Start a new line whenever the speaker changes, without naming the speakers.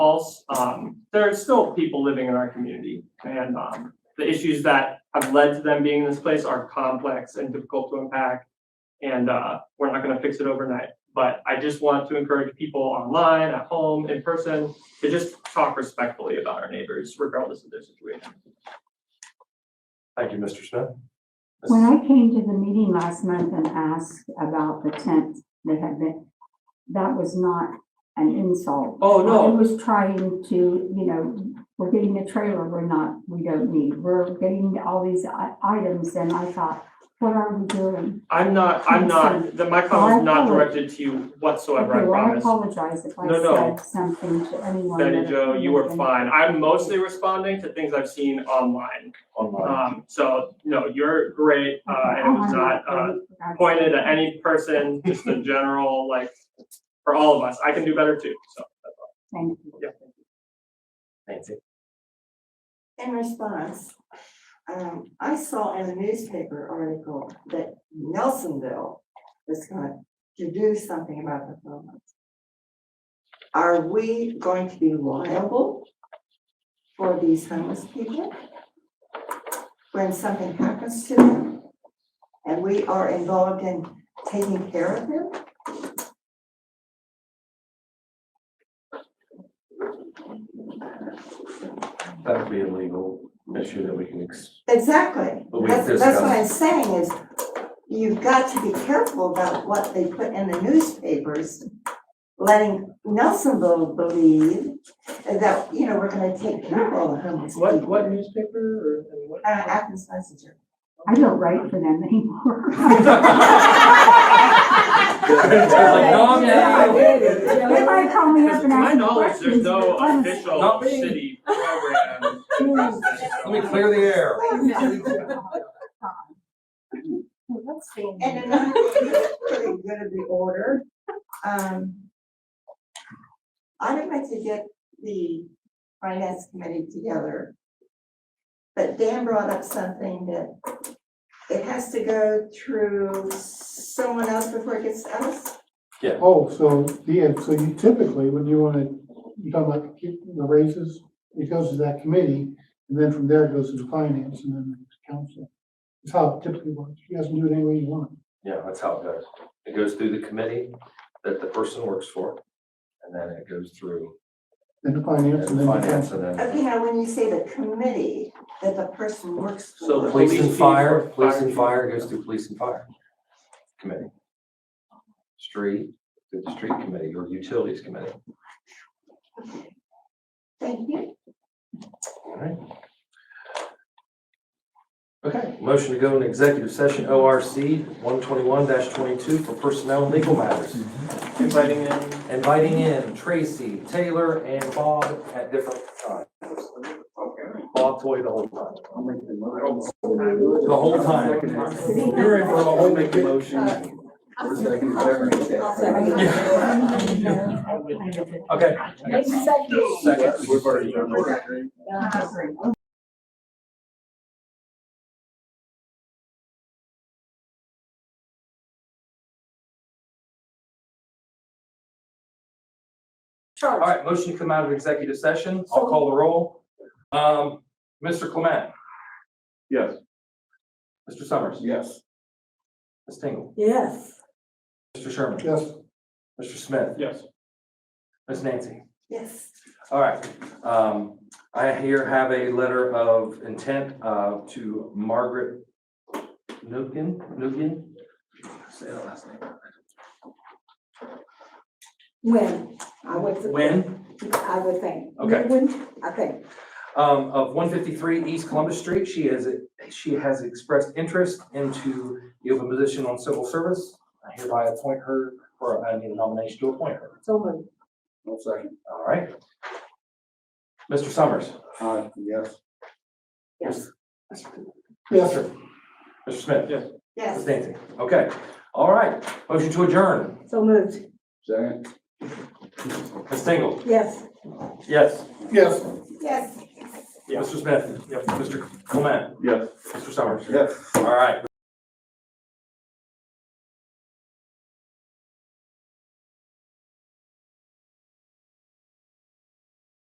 false. Um, there are still people living in our community and, um, the issues that have led to them being in this place are complex and difficult to unpack. And, uh, we're not gonna fix it overnight, but I just want to encourage people online, at home, in person, to just talk respectfully about our neighbors regardless of their situation.
Thank you, Mr. Smith.
When I came to the meeting last month and asked about the tent that had been, that was not an insult.
Oh,
I
no,
was trying to, you know, we're getting a trailer we're not, we don't need, we're getting all these i- items, and I thought, what are we doing?
I'm not, I'm not, the- my comment is not directed to you whatsoever, I
Okay, well, I
promise.
apologize if I
No, no.
said something to anyone.
Betty
that
Jo, you were
offended them.
fine. I'm mostly responding to things I've seen online.
Online.
Um, so, no, you're great, uh, and it was
I'm
not, uh,
great, that's-
pointed at any person, just a general, like, for all of us. I can do better too, so,
Thank you.
yeah.
Nancy.
In response, um, I saw in a newspaper article that Nelsonville is going to do something about the homeless. Are we going to be liable for these homeless people? When something happens to them? And we are involved in taking care of them?
That would be a legal issue that we can, ex-
Exactly.
But we
That's, that's what
discussed-
I'm saying is you've got to be careful about what they put in the newspapers. Letting Nelsonville believe that, you know, we're gonna take care of all the homeless people.
newspaper or,
Uh, Athens Messenger.
I don't write for them anymore.
no, no.
They might call me up
To
and
my
ask me
knowledge, there's
questions.
no
but honestly,
official
Not me.
city program.
let me clear the air.
Let's see.
Mm.
And another thing that's pretty good of the order, um. I'd like to get the finance committee together. But Dan brought up something that it has to go through someone else before it gets to us.
Oh, so, yeah, so you typically, when you wanna, you talk about the raises, it goes to that committee, and then from there it goes to the finance and then the council. It's how it typically works, you guys can do it any way you want.
Yeah, that's how it goes. It goes through the committee that the person works for, and then it goes through
Then the finance and then the
finance
council.
and then.
Okay, now when you say the committee, that the person works for.
So the
Police
Police
and
chief
fire,
or
police
fire
and
chief.
fire goes through police and fire committee. Street, through the street committee or utilities committee.
Thank you.
All right. Okay, motion to go into executive session, ORC one twenty-one twenty-two for personnel and legal matters.
Inviting in.
Inviting in Tracy, Taylor, and Bob at different times. Bob Toy the whole time. The whole time. You're in for a whole big
Uh,
motion.
I'll second.
Okay. Second. All right, motion to come out of executive session. I'll call the roll. Um, Mr. Clement,
Yes.
Mr. Summers.
Yes.
Ms. Tingle,
Yes.
Mr. Sherman,
Yes.
Mr. Smith,
Yes.
Ms. Nancy.
Yes.
All right, um, I here have a letter of intent, uh, to Margaret Nukin, Nukin? Say that last name.
When, I would, th-
Wynn,
I would think.
Okay.
When, I think,
um, of one fifty-three East Columbus Street. She has, she has expressed interest into the open position on civil service. I hereby appoint her, or I need a nomination to appoint her.
so moved.
One second.
All right. Mr. Summers.
Uh, yes.
Yes.
Yes.
Mr. Smith. Ms.
Yes.
Nancy. Okay, all right. Motion to adjourn.
So moved,
Second.
Ms. Tingle?
yes.
Yes.
Yes.
Yes.
Mr. Smith? Mr. Clement?
Yes.
Mr. Summers?
Yes.
All right.